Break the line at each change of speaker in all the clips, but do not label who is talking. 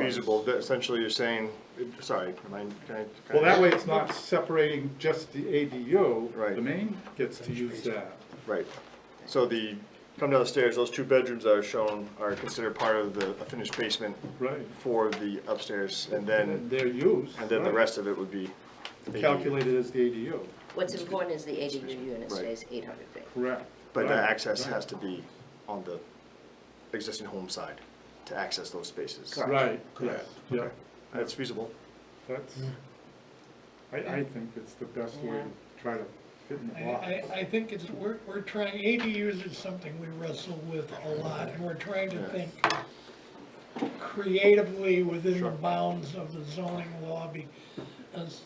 feasible, that essentially you're saying, sorry, am I, can I? can
Well,
I-
that way it's not separating just the ADU,
Right.
the main gets to use that.
Right, so the, come down the stairs, those two bedrooms that are shown are considered part of the a finished basement
Right.
for the upstairs, and then,
And their use.
and then the
right,
rest of it would be.
Calculated as the ADU,
What's important is the ADU
Right.
unit stays eight hundred feet.
correct.
But the
Right,
access
right,
has to be on the existing home side to access those spaces.
Right, correct, yeah,
That's feasible.
that's, I, I think it's the best way to try to fit in the
I,
block.
I, I think it's, we're, we're trying, ADUs is something we wrestle with a lot, and we're trying to think creatively within the bounds of the zoning lobby. As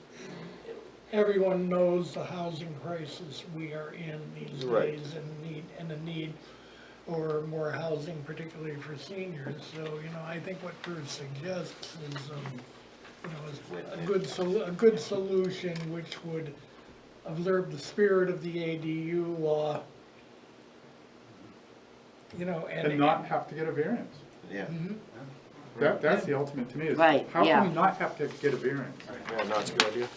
everyone knows the housing crisis we are in these
Right.
days and need, and the need for more housing, particularly for seniors, so, you know, I think what Bruce suggests is, um, you know, is a good, sol- a good solution which would observe the spirit of the ADU law, you know, and.
And not have to get a variance.
Yeah.
Mm-hmm.
That, that's the ultimate to me, is
Right,
how
yeah.
can you not have to get a variance?
Yeah, no, it's a good idea.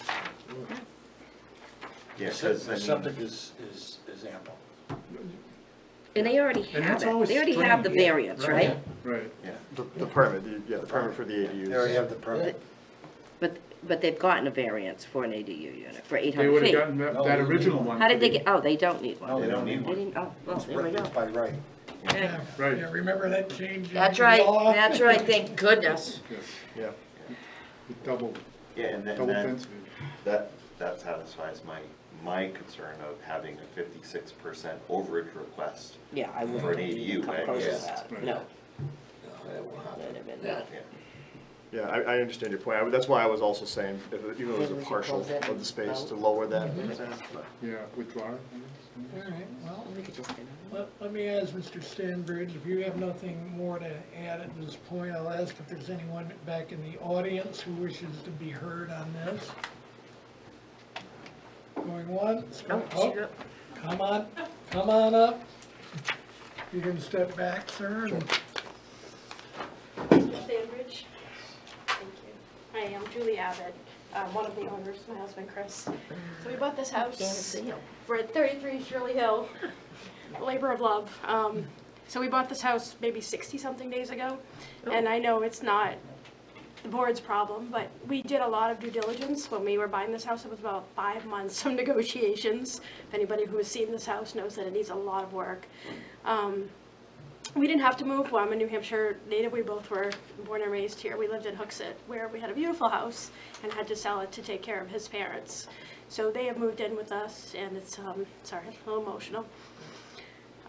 Yeah, because the septic is, is, is ample.
And they already
And
have
that's
it,
always
they already have the
strange, yeah,
variance, right?
Right,
Yeah.
The the permit, the- yeah, the permit for the
They already
ADUs.
have the permit.
But, but they've gotten a variance for an ADU unit, for eight
they
hundred
would have
feet.
gotten that, that original one.
How did they
to be-
get, oh, they don't need one.
No, they don't need
They
one.
didn't, oh, well, there we go.
By right.
Yeah,
Right.
yeah, remember that change in law?
That's right, that's right, thank goodness.
Yeah.
It Doubled,
Yeah, and then,
double
then,
density.
that, that satisfies my, my concern of having a fifty-six percent overage request
Yeah, I
for an
wouldn't
ADU, I
oppose
guess.
that,
Right.
no.
No, that won't happen.
That'd have been bad.
Yeah.
Yeah, I, I understand your point. I- That's why I was also saying, if it- even if it was a partial of the space, to lower that.
Yeah, withdraw. it.
All right, well,
We could just get another
let, let me ask Mr. Stanbridge, if you have nothing more to add at this point, I'll ask if there's anyone back in the audience who wishes to be heard on this. Going once,
one.
going,
Oh,
oh,
shoot.
come on, come on up. You can step back, sir, and
Mr. Stanbridge. Thank you. Hi, I'm Julie Abbott, um, one of the owners, my husband Chris. So we bought this
Can't
house.
see 'em.
We're at 33 Shirley Hill, labor of love. Um, So we bought this house maybe 60-something days ago, and I know it's not the board's problem, but we did a lot of due diligence when we were buying this house. It was about five months of negotiations. If anybody who has seen this house knows that it needs a lot of work. Um, we didn't have to move. Well, I'm a New Hampshire native. We both were born and raised here. We lived in Hooksett, where we had a beautiful house and had to sell it to take care of his parents. So they have moved in with us, and it's um, sorry, a little emotional.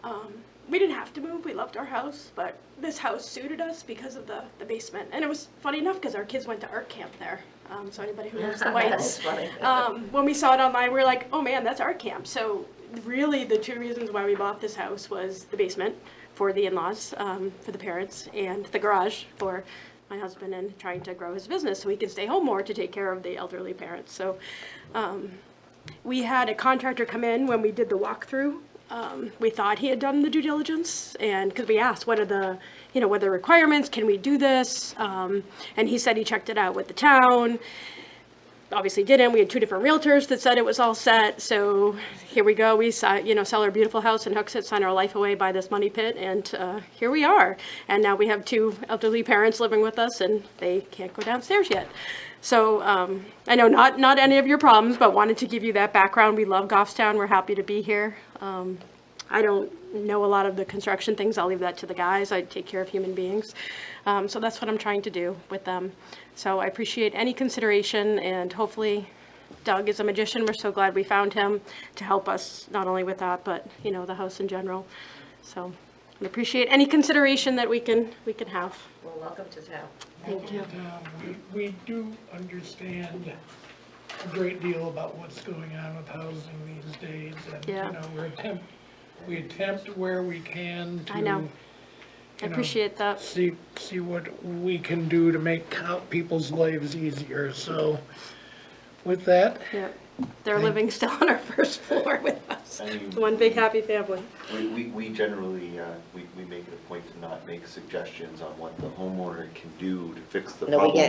Um, we didn't have to move. We loved our house, but this house suited us because of the, the basement. And it was funny enough because our kids went to art camp there. Um, so anybody who knows the
That's
Whites,
funny.
um, when we saw it online, we were like, oh man, that's our camp. So really, the two reasons why we bought this house was the basement for the in-laws, um, for the parents, and the garage for my husband and trying to grow his business so he can stay home more to take care of the elderly parents. So um, we had a contractor come in when we did the walkthrough. Um, we thought he had done the due diligence, and because we asked, what are the, you know, what are the requirements? Can we do this? Um, and he said he checked it out with the town obviously didn't. We had two different realtors that said it was all set. So here we go. We saw, you know, sell our beautiful house in Hooksett, sign our life away by this money pit, and uh, here we are. And now we have two elderly parents living with us, and they can't go downstairs yet. So um, I know not not any of your problems, but wanted to give you that background. We love Goffstown. We're happy to be here. Um, I don't know a lot of the construction things. I'll leave that to the guys. I take care of human beings. Um, so that's what I'm trying to do with them. So I appreciate any consideration and hopefully Doug is a magician. We're so glad we found him to help us not only with that, but you know, the house in general. So I appreciate any consideration that we can, we can have.
Well, welcome to town.
Thank you.
Um, we- We do understand a great deal about what's going on with housing these days, and, you
Yeah.
know, we're attempt, we attempt where we can to.
I know. I
know,
appreciate that.
See, see what we can do to make co- people's lives easier, so with that,
Yep. They're living still on our first floor with us. house.
I mean-
One big happy family.
We, we, we generally, uh, we, we make it a point to not make suggestions on what the homeowner can do to fix the
No, we
problem.
get